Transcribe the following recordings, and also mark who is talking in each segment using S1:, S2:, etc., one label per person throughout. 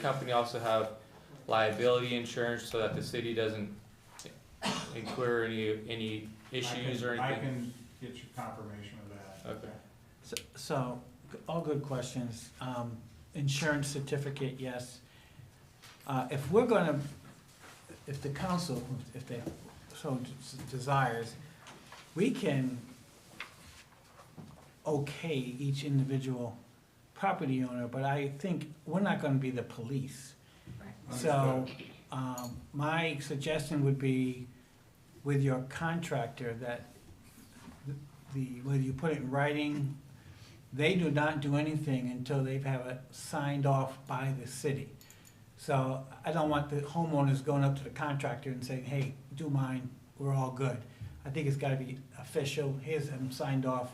S1: company also have liability insurance so that the city doesn't incur any, any issues or
S2: I can- I
S1: anything?
S2: can get you confirmation of that.
S1: Okay.
S3: So- So, all good questions. Um, Insurance certificate, yes. Uh, If we're gonna, if the council, if they so desires, we can okay each individual property owner, but I think we're not gonna be the police. So,
S2: Understood.
S3: um, my suggestion would be with your contractor that the, whether you put it in writing, they do not do anything until they have it signed off by the city. So I don't want the homeowners going up to the contractor and saying, hey, do mine, we're all good. I think it's gotta be official, here's them signed off,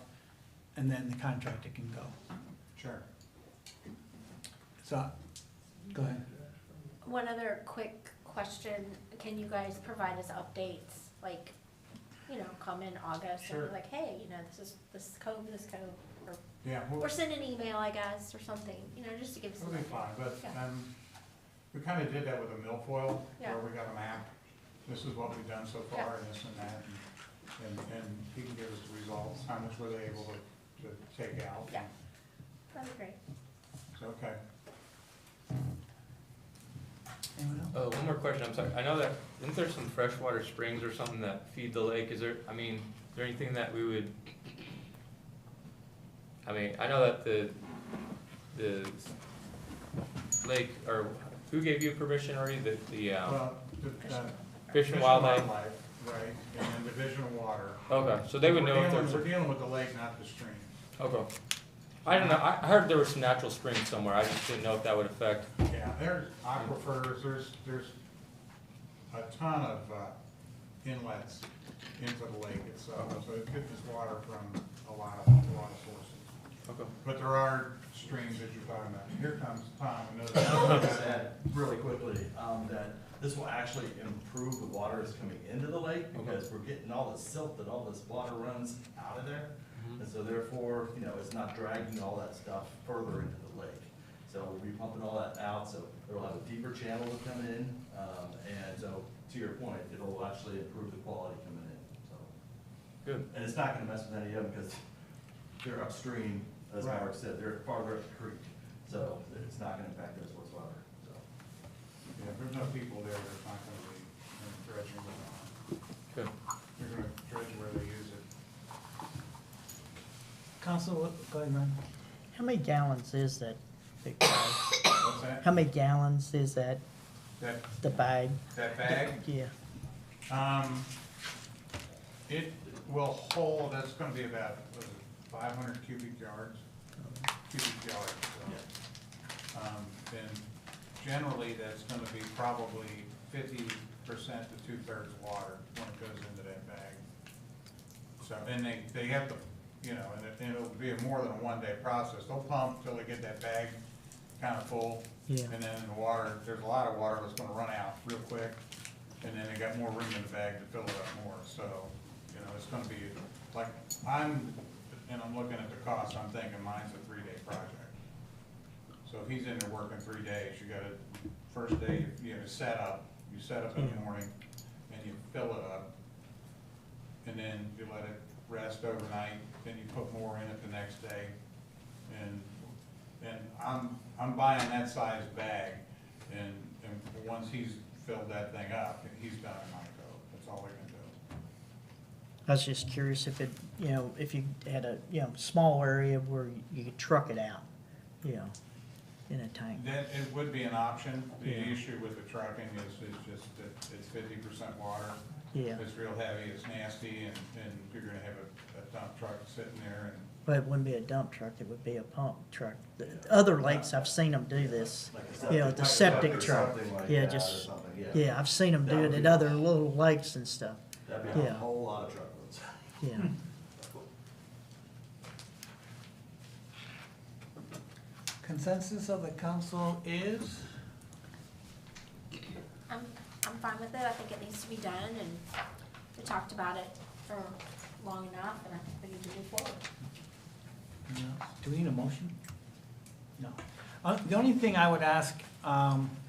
S3: and then the contractor can go.
S2: Sure.
S3: So, go ahead.
S4: One other quick question, can you guys provide us updates, like, you know, come in August and
S2: Sure.
S4: be like, hey, you know, this is, this is code, this code,
S2: Yeah, we'll,
S4: or send an email, I guess, or something, you know, just to give us. an
S2: we'll be
S4: update.
S2: fine, but,
S4: Yeah.
S2: um, we kinda did that with a milfoil,
S4: Yeah.
S2: where we got a map. This is what we've done so far, and this and that, and, and- and he can give us the results, how much were they able to, to take out.
S4: Yeah. That'd be great.
S2: It's okay.
S3: Anyone else?
S1: Oh, one more question, I'm sorry, I know that, isn't there some freshwater springs or something that feed the lake, is there, I mean, is there anything that we would? I mean, I know that the, the lake, or who gave you permission already, the, the, um,
S2: Well, the, uh.
S1: Fish and Wildlife?
S2: Right, and then Division of Water.
S1: Okay, so they would
S2: We're
S1: know if
S2: dealing-
S1: there's,
S2: We're dealing with the lake, not the stream.
S1: okay. I don't know, I, I heard there was some natural springs somewhere, I just didn't know if that would affect,
S2: Yeah, there's aquifers, there's, there's a ton of uh, inlets into the lake itself, so it gets its water from a lot of, a lot of sources.
S1: okay.
S2: But there are streams that you're talking about. Here comes Tom, another.
S5: just add really quickly, um, that this will actually improve the water that's coming into the lake, because we're getting all the silt that all this water runs out of there.
S1: Mm-hmm.
S5: And so therefore, you know, it's not dragging all that stuff further into the lake. So we'll be pumping all that out, so it'll have a deeper channel to come in, um, and so, to your point, it'll actually improve the quality coming in, so.
S1: Good.
S5: And it's not gonna mess with any of them, because they're upstream, as
S2: Right.
S5: Mark said, they're farther up the creek, so it's not gonna impact us whatsoever, so.
S2: Yeah, if there's no people there, there's not gonna be any dredging going on.
S1: Good.
S2: They're gonna dredge where they use it.
S3: Council, go ahead, Ron.
S6: How many gallons is that big bag?
S2: What's that?
S6: How many gallons is that,
S2: That,
S6: the bag?
S2: that bag?
S6: Yeah,
S2: Um, it will hold, that's gonna be about, what is it, five hundred cubic yards? Cubic yards, so. Um, then generally, that's gonna be probably fifty percent to two-thirds water when it goes into that bag. So, and they, they have to, you know, and it, and it'll be a more than a one-day process. They'll pump till they get that bag kinda full.
S6: Yeah.
S2: And then the water, there's a lot of water that's gonna run out real quick, and then they got more room in the bag to fill it up more, so, you know, it's gonna be, like, I'm, and I'm looking at the cost, I'm thinking mine's a three-day project. So if he's in there working three days, you gotta, first day, you know, set up, you set up in the morning, and you fill it up, and then you let it rest overnight, then you put more in it the next day. And, and I'm, I'm buying that size bag, and, and once he's filled that thing up, he's done in my coat, that's all we can do.
S6: I was just curious if it, you know, if you had a, you know, small area where you could truck it out, you know, in a tank.
S2: That, it would be an option, the
S6: Yeah.
S2: issue with the trucking is, is just that it's fifty percent water.
S6: Yeah,
S2: It's real heavy, it's nasty, and, and you're gonna have a, a dump truck sitting there, and
S6: but it wouldn't be a dump truck, it would be a pump truck. The Other lakes, I've seen them do this.
S5: Like a
S6: You know,
S5: septic- like
S6: the
S5: a
S6: septic
S5: or
S6: truck.
S5: something like
S6: Yeah,
S5: that or
S6: just-
S5: something,
S6: Yeah, I've seen them do it at other little lakes and stuff,
S5: That'd be a
S6: yeah.
S5: whole lot of truckloads.
S6: yeah.
S3: Consensus of the council is?
S4: I'm, I'm fine with it, I think it needs to be done, and we talked about it for long enough, and I think we need to move forward.
S3: No. Do we need a motion? No. Uh, The only thing I would ask, um, Um,